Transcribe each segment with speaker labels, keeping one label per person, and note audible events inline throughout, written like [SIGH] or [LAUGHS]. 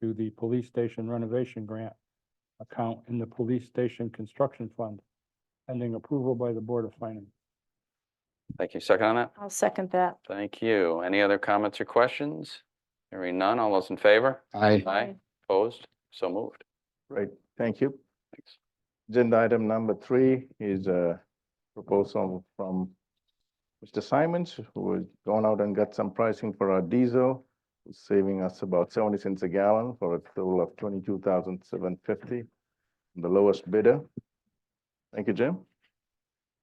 Speaker 1: to the police station renovation grant account in the police station construction fund, pending approval by the Board of Finance.
Speaker 2: Thank you. Second on that?
Speaker 3: I'll second that.
Speaker 2: Thank you. Any other comments or questions? Hearing none. All those in favor?
Speaker 4: Aye.
Speaker 2: Aye. Opposed? So moved.
Speaker 5: Right, thank you.
Speaker 2: Thanks.
Speaker 5: Agenda item number three is a proposal from Mr. Simons, who has gone out and got some pricing for our diesel, saving us about seventy cents a gallon for a total of twenty-two thousand seven fifty, the lowest bidder. Thank you, Jim.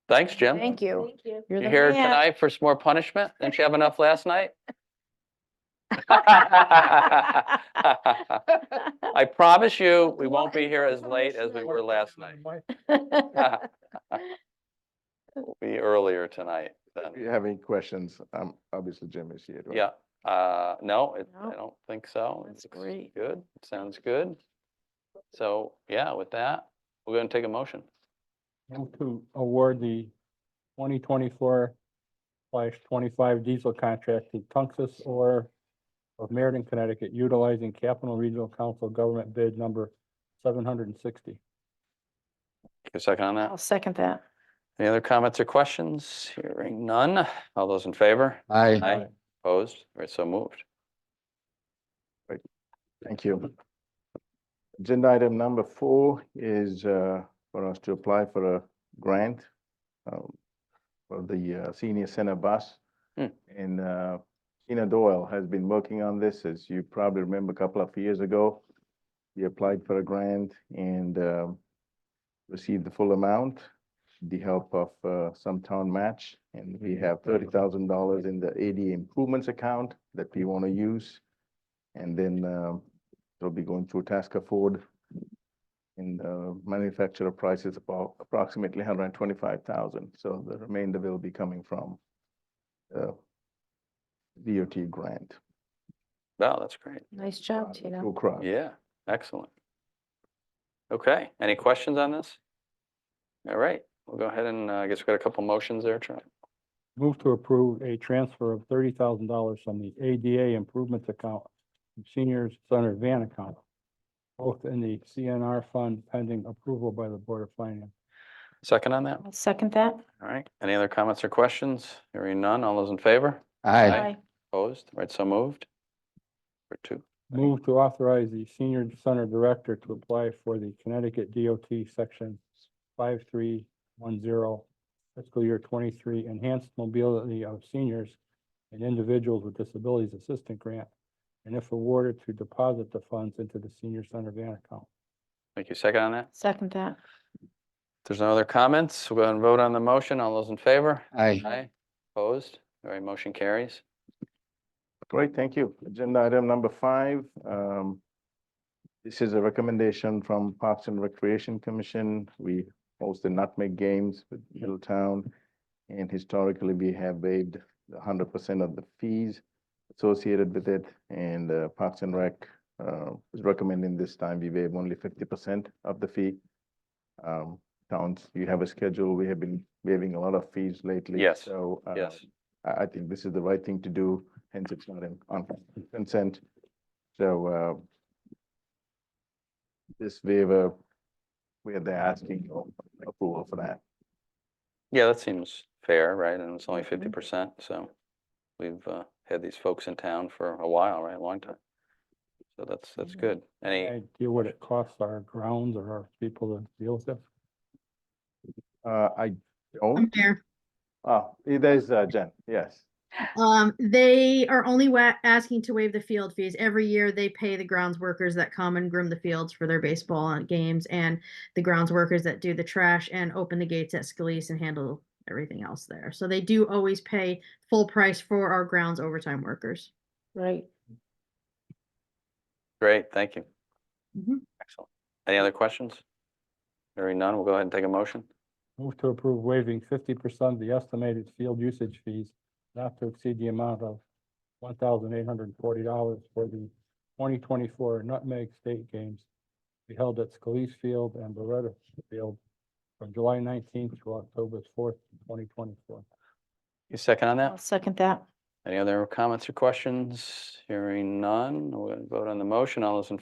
Speaker 2: Thanks, Jim.
Speaker 3: Thank you.
Speaker 6: you.
Speaker 3: You're
Speaker 2: You
Speaker 3: the
Speaker 2: here
Speaker 3: man.
Speaker 2: tonight for some more punishment? Didn't you have enough last
Speaker 3: [LAUGHS]
Speaker 2: night? I promise you, we won't be here as late as we were last night.
Speaker 3: [LAUGHS]
Speaker 2: [LAUGHS] We'll Be earlier tonight then.
Speaker 5: If you have any questions, um, obviously Jim is here. right?
Speaker 2: Yeah, uh, no, it- I
Speaker 3: No.
Speaker 2: don't think so.
Speaker 3: That's
Speaker 2: It's
Speaker 3: great.
Speaker 2: Good, sounds good. So, yeah, with that, we're gonna take a motion.
Speaker 1: Move to award the twenty twenty-four slash twenty-five diesel contract to Tungus or of Meriden, Connecticut, utilizing Capital Regional Council Government Bid Number seven hundred and sixty.
Speaker 2: Take a second on that.
Speaker 3: I'll second that.
Speaker 2: Any other comments or questions? Hearing none. All those in favor?
Speaker 4: Aye.
Speaker 2: Aye. Opposed? All right, so moved.
Speaker 5: Thank you. Agenda item number four is uh, for us to apply for a grant um, for the uh, senior center bus.
Speaker 2: Hmm.
Speaker 5: And uh, Tina Doyle has been working on this, as you probably remember, a couple of years ago. We applied for a grant and um, received the full amount, the help of uh, some town match. And we have thirty thousand dollars in the ADA improvements account that we want to use. And then um, it'll be going through Tasker Ford. And uh, manufacturer price is about approximately hundred and twenty-five thousand, so the remainder will be coming from uh, DOT grant.
Speaker 2: Wow, that's great.
Speaker 3: Nice job,
Speaker 5: uh,
Speaker 3: Tina.
Speaker 5: through CROG.
Speaker 2: Yeah, excellent. Okay, any questions on this? All right, we'll go ahead and uh, I guess we got a couple motions there, Charlie.
Speaker 1: Move to approve a transfer of thirty thousand dollars from the ADA improvements account to seniors center van account, both in the CNR fund pending approval by the Board of Finance.
Speaker 2: Second on that?
Speaker 3: I'll second that.
Speaker 2: All right, any other comments or questions? Hearing none. All those in favor?
Speaker 4: Aye.
Speaker 2: Aye. Opposed? All right, so moved. For two.
Speaker 1: Move to authorize the senior center director to apply for the Connecticut DOT section five three one zero fiscal year twenty-three enhanced mobility of seniors and individuals with disabilities assistant grant, and if awarded, to deposit the funds into the senior center van account.
Speaker 2: Thank you. Second on that?
Speaker 3: Second that.
Speaker 2: If there's no other comments, we'll go ahead and vote on the motion. All those in favor?
Speaker 4: Aye.
Speaker 2: Aye. Opposed? All right, motion carries.
Speaker 5: Great, thank you. Agenda item number five. um, This is a recommendation from Parks and Recreation Commission. We host the Nutmeg Games with Middletown. And historically, we have waived hundred percent of the fees associated with it. And uh, Parks and Rec uh, is recommending this time we waive only fifty percent of the fee. Um, Towns, you have a schedule. We have been waiving a lot of fees lately.
Speaker 2: Yes,
Speaker 5: So. uh,
Speaker 2: Yes.
Speaker 5: I, I think this is the right thing to do, hence it's not in, on consent. So, uh, this waiver, we're there asking approval for that.
Speaker 2: Yeah, that seems fair, right? And it's only fifty percent, so we've uh, had these folks in town for a while, right? A long time. So that's, that's
Speaker 3: Mhm.
Speaker 2: good. Any,
Speaker 1: idea what it costs our grounds or our people to deal with this?
Speaker 5: Uh, I
Speaker 6: I'm
Speaker 5: don't,
Speaker 6: there.
Speaker 5: ah, there's, uh, Jen, yes.
Speaker 6: Um, they are only wa- asking to waive the field fees. Every year they pay the grounds workers that come and groom the fields for their baseball and games and the grounds workers that do the trash and open the gates at Scalise and handle everything else there. So they do always pay full price for our grounds overtime workers.
Speaker 3: Right.
Speaker 2: great, thank you.
Speaker 6: Mhm.
Speaker 2: Excellent. Any other questions? Hearing none, we'll go ahead and take a motion.
Speaker 1: Move to approve waiving fifty percent of the estimated field usage fees not to exceed the amount of one thousand eight hundred and forty dollars for the twenty twenty-four Nutmeg State Games to be held at Scalise Field and Beretta Field from July nineteenth to October fourth, twenty twenty-four.
Speaker 2: You second on
Speaker 3: I'll
Speaker 2: that?
Speaker 3: second that.
Speaker 2: Any other comments or questions? Hearing none, we'll go ahead and vote on the motion. All those in